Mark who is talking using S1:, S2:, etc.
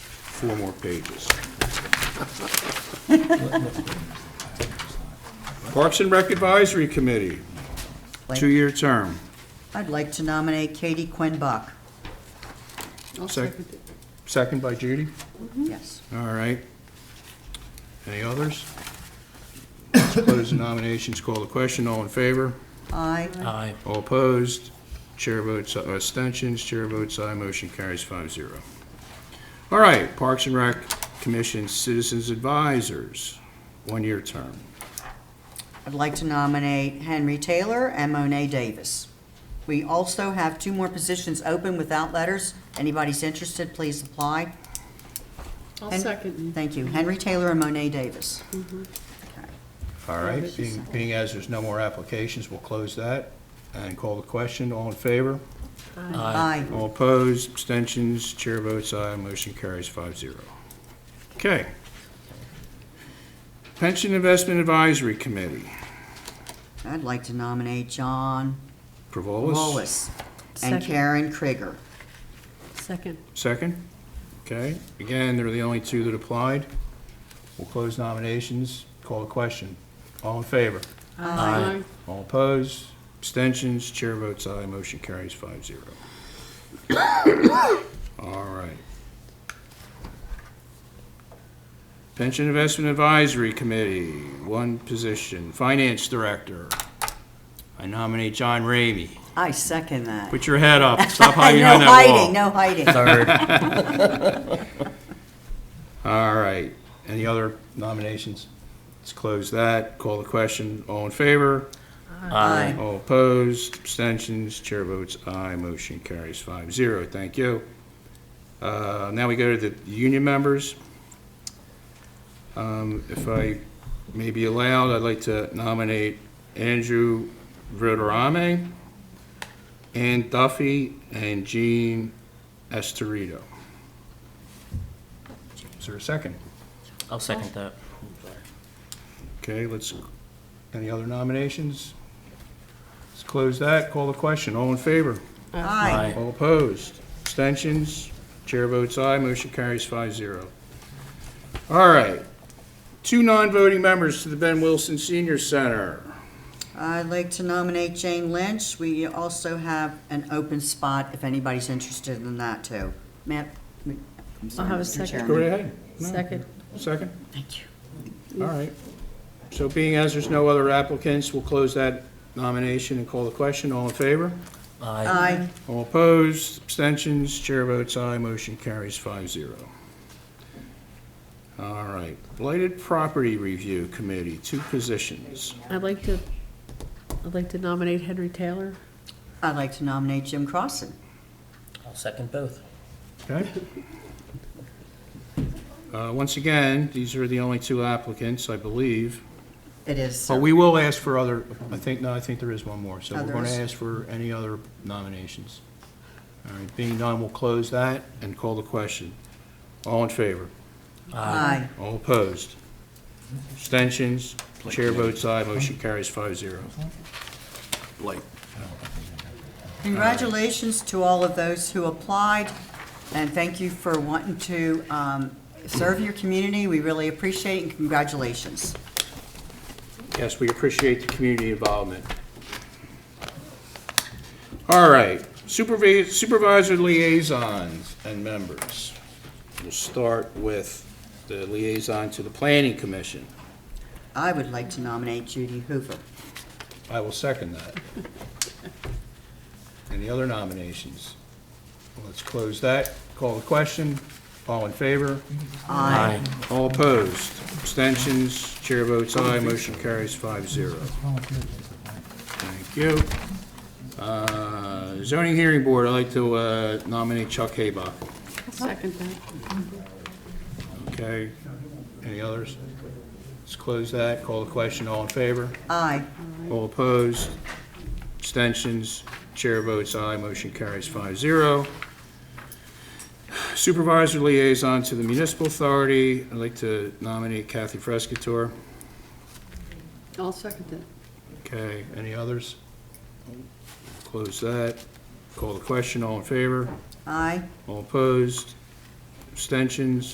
S1: four more pages. Parks and Rec Advisory Committee,
S2: Like-
S1: two-year term.
S2: I'd like to nominate Katie Quinn Buck.
S1: Sec- Second by Judy.
S2: Yes.
S1: All right. Any others? Let's Close the nominations, call the question, all in favor?
S2: Aye.
S3: Aye.
S1: All opposed? Chair votes, uh, abstentions, chair votes aye, motion carries five zero. All right, Parks and Rec Commission Citizens Advisors, one-year term.
S2: I'd like to nominate Henry Taylor and Monet Davis. We also have two more positions open without letters. Anybody's interested, please apply.
S4: I'll
S2: And-
S4: second.
S2: Thank you. Henry Taylor and Monet Davis.
S1: All right, being, being as there's no more applications, we'll close that and call the question, all in favor?
S2: Aye.
S1: All opposed, abstentions, chair votes aye, motion carries five zero. Okay. Pension Investment Advisory Committee,
S2: I'd like to nominate John
S1: Provolis?
S2: Wallace and
S4: Second.
S2: Karen Krieger.
S4: Second.
S1: Second? Okay, again, they're the only two that applied. We'll close nominations, call a question. All in favor?
S3: Aye.
S1: All opposed, abstentions, chair votes aye, motion carries five zero. All right. Pension Investment Advisory Committee, one position, Finance Director. I nominate John Ramey.
S2: I second that.
S1: Put your head up, stop hiding behind that wall.
S2: No hiding, no hiding.
S3: Third.
S1: All right, any other nominations? Let's close that, call the question, all in favor?
S2: Aye.
S1: All opposed, abstentions, chair votes aye, motion carries five zero, thank you. Uh, Now we go to the union members. Um, If I may be allowed, I'd like to nominate Andrew Roderame, Ann Duffy, and Jean Estorito. Is there a second?
S3: I'll second that.
S1: Okay, let's, any other nominations? Let's close that, call the question, all in favor?
S2: Aye.
S1: All opposed? Abstentions? Chair votes aye, motion carries five zero. All right, two non-voting members to the Ben Wilson Senior Center.
S2: I'd like to nominate Jane Lynch. We also have an open spot if anybody's interested in that too. Matt? I'm sorry,
S4: have a
S2: Mr.
S4: second.
S2: Chairman.
S1: Go right ahead. No,
S4: Second.
S1: Second?
S2: Thank you.
S1: All right. So being as there's no other applicants, we'll close that nomination and call the question, all in favor?
S3: Aye.
S2: Aye.
S1: All opposed, abstentions, chair votes aye, motion carries five zero. All right, Blighted Property Review Committee, two positions.
S4: I'd like to, I'd like to nominate Henry Taylor.
S2: I'd like to nominate Jim Crossan.
S3: I'll second both.
S1: Okay. Uh, Once again, these are the only two applicants, I believe.
S2: It is, sir.
S1: But we will ask for other, I think, no, I think there is one more. So we're going
S2: Others.
S1: to ask for any other nominations. All right, being none, we'll close that and call the question. All in favor?
S2: Aye.
S1: All opposed? Abstentions? Chair votes aye, motion carries five zero.
S2: Congratulations to all of those who applied, and thank you for wanting to um, serve your community. We really appreciate it, and congratulations.
S1: Yes, we appreciate the community involvement. All right, supervi- supervisor liaisons and members. We'll start with the liaison to the planning commission.
S2: I would like to nominate Judy Hoover.
S1: I will second that. Any other nominations? Let's close that, call the question, all in favor?
S3: Aye.
S1: All opposed, abstentions, chair votes aye, motion carries five zero. Thank you. Uh, Zoning Hearing Board, I'd like to uh, nominate Chuck Haybuck.
S4: Second that.
S1: Okay, any others? Let's close that, call the question, all in favor?
S2: Aye.
S1: All opposed, abstentions, chair votes aye, motion carries five zero. Supervisor Liaison to the Municipal Authority, I'd like to nominate Kathy Frescatore.
S4: I'll second that.
S1: Okay, any others? Close that. Call the question, all in favor?
S2: Aye.
S1: All opposed? Abstentions?